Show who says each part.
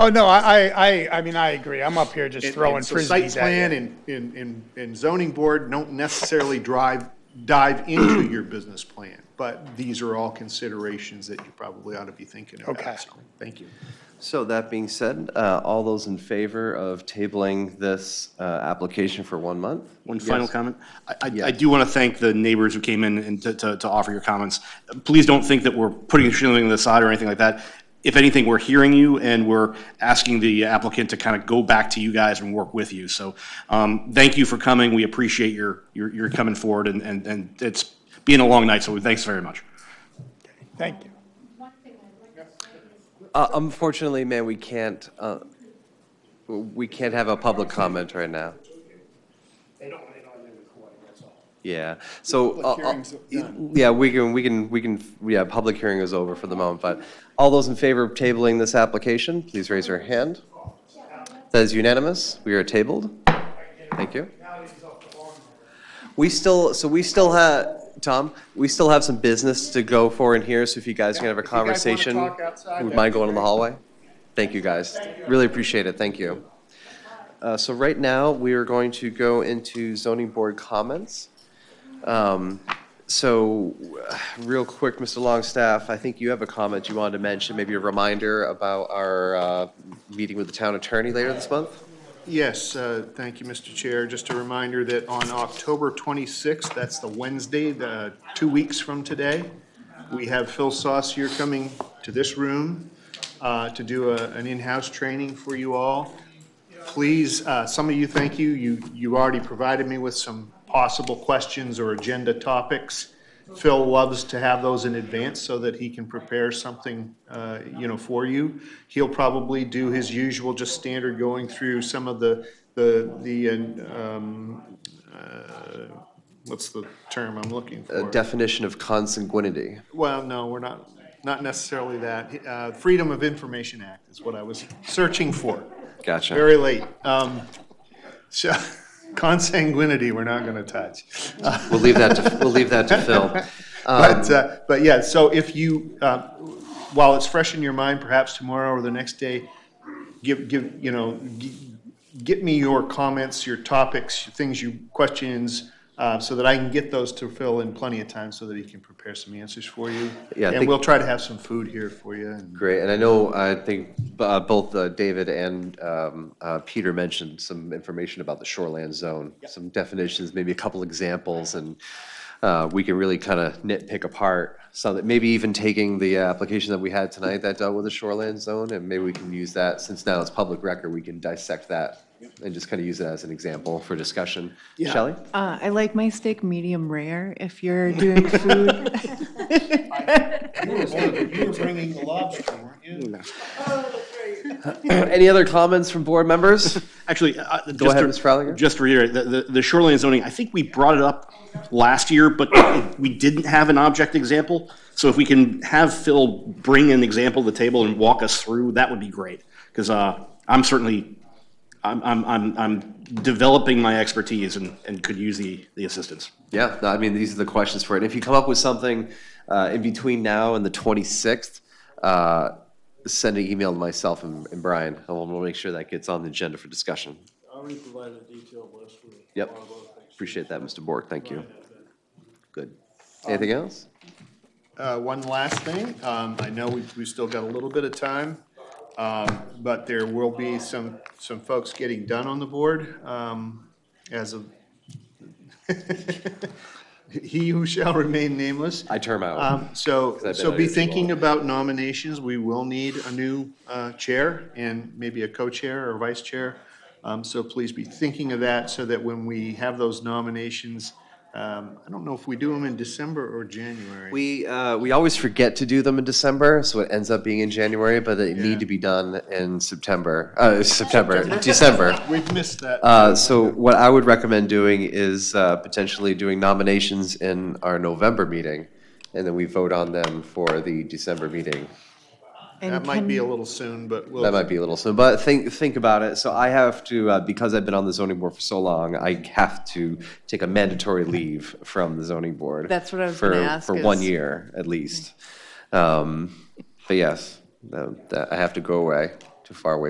Speaker 1: Oh, no, I, I, I- I mean, I agree. I'm up here just
Speaker 2: And-
Speaker 1: throwing
Speaker 2: and so Site
Speaker 1: frisbees at
Speaker 2: plan
Speaker 1: you.
Speaker 2: and, and, and- and zoning board don't necessarily drive, dive into your business plan, but these are all considerations that you probably ought to be thinking about.
Speaker 1: Okay.
Speaker 2: So, Thank you.
Speaker 3: So that being said, uh, all those in favor of tabling this uh, application for one month?
Speaker 4: One final
Speaker 3: Yes.
Speaker 4: comment. I- I,
Speaker 3: Yeah.
Speaker 4: I do want to thank the neighbors who came in and to, to, to offer your comments. Please don't think that we're putting shielding on the side or anything like that. If anything, we're hearing you and we're asking the applicant to kind of go back to you guys and work with you. So, um, thank you for coming. We appreciate your, your, your coming forward and, and, and it's been a long night, so thanks very much.
Speaker 1: Thank you.
Speaker 3: Uh, Unfortunately, man, we can't, uh, we can't have a public comment right now. Yeah, so, uh, uh, yeah, we can, we can, we can, yeah, public hearing is over for the moment, but all those in favor of tabling this application, please raise your hand. That is unanimous, we are tabled. Thank you. We still, so we still have, Tom, we still have some business to go for in here, so if you guys can have a
Speaker 2: if you guys wanna
Speaker 3: conversation,
Speaker 2: talk outside,
Speaker 3: would
Speaker 2: that'd
Speaker 3: mind
Speaker 2: be
Speaker 3: going in the
Speaker 2: great.
Speaker 3: hallway? Thank you, guys. Really appreciate it, thank you. Uh, So right now, we are going to go into zoning board comments. Um, So, uh, real quick, Mr. Longstaff, I think you have a comment you wanted to mention, maybe a reminder about our uh, meeting with the town attorney later this month?
Speaker 2: Yes, uh, thank you, Mr. Chair. Just a reminder that on October 26th, that's the Wednesday, the, two weeks from today, we have Phil Saucier coming to this room uh, to do a- an in-house training for you all. Please, uh, some of you, thank you, you, you already provided me with some possible questions or agenda topics. Phil loves to have those in advance so that he can prepare something, uh, you know, for you. He'll probably do his usual, just standard going through some of the, the, the, um, uh, what's the term I'm looking
Speaker 3: A
Speaker 2: for?
Speaker 3: definition of consanguinity.
Speaker 2: Well, no, we're not, not necessarily that. Uh, Freedom of Information Act is what I was searching for.
Speaker 3: Gotcha.
Speaker 2: Very late. Um, So consanguinity, we're not going to touch.
Speaker 3: We'll leave that to, we'll leave that to Phil. Um,
Speaker 2: But, uh, but yeah, so if you, uh, while it's fresh in your mind, perhaps tomorrow or the next day, give, give, you know, g- get me your comments, your topics, things you, questions, uh, so that I can get those to Phil in plenty of time so that he can prepare some answers for you.
Speaker 3: Yeah, I
Speaker 2: And
Speaker 3: think-
Speaker 2: we'll try to have some food here for you and
Speaker 3: Great, and I know, I think uh, both uh, David and um, uh, Peter mentioned some information about the shoreland zone, some definitions, maybe a couple examples, and uh, we can really kind of nitpick apart, so that maybe even taking the application that we had tonight that dealt with the shoreland zone, and maybe we can use that, since now it's public record, we can dissect that and just kind of use it as an example for discussion. Shelley?
Speaker 5: Uh, I like my steak medium rare if you're doing food.
Speaker 2: You were bringing the lobster, weren't you?
Speaker 3: Any other comments from board members?
Speaker 4: Actually, uh, just
Speaker 3: ahead,
Speaker 4: to-
Speaker 3: Ms. Fralinger.
Speaker 4: Just to reiterate, the- the, the shoreline zoning, I think we brought it up last year, but we didn't have an object example. So if we can have Phil bring an example to the table and walk us through, that would be great. Because I'm certainly, I'm, I'm, I'm, I'm developing my expertise and, and could use the, the assistance.
Speaker 3: Yeah, no, I mean, these are the questions for it. If you come up with something uh, in between now and the 26th, uh, send an email to myself and and Brian, and we'll we'll make sure that gets on the agenda for discussion.
Speaker 6: I already provided a detailed list for.
Speaker 3: Yep. Appreciate that, Mr. Bork, thank you. Good. Anything else?
Speaker 2: Uh, One last thing, um, I know we- we've still got a little bit of time, um, but there will be some, some folks getting done on the board um, as of, he who shall remain nameless.
Speaker 3: I term out.
Speaker 2: Um, So,
Speaker 3: I've been
Speaker 2: so
Speaker 3: out
Speaker 2: be
Speaker 3: here too
Speaker 2: thinking
Speaker 3: long.
Speaker 2: about nominations. We will need a new uh, chair and maybe a co-chair or vice chair. Um, So please be thinking of that so that when we have those nominations, um, I don't know if we do them in December or January.
Speaker 3: We, uh, we always forget to do them in December, so it ends up being in January, but they
Speaker 2: Yeah.
Speaker 3: need to be done in September, uh, September, December.
Speaker 2: We've missed that.
Speaker 3: Uh, So what I would recommend doing is uh, potentially doing nominations in our November meeting, and then we vote on them for the December meeting.
Speaker 2: That
Speaker 5: and
Speaker 2: might be a
Speaker 5: can-
Speaker 2: little soon, but we'll.
Speaker 3: That might be a little soon, but think, think about it. So I have to, uh, because I've been on the zoning board for so long, I have to take a mandatory leave from the zoning board.
Speaker 5: That's what I was gonna
Speaker 3: for-
Speaker 5: ask
Speaker 3: For one
Speaker 5: is-
Speaker 3: year, at least. Um, But yes, that- that- I have to go away, to far away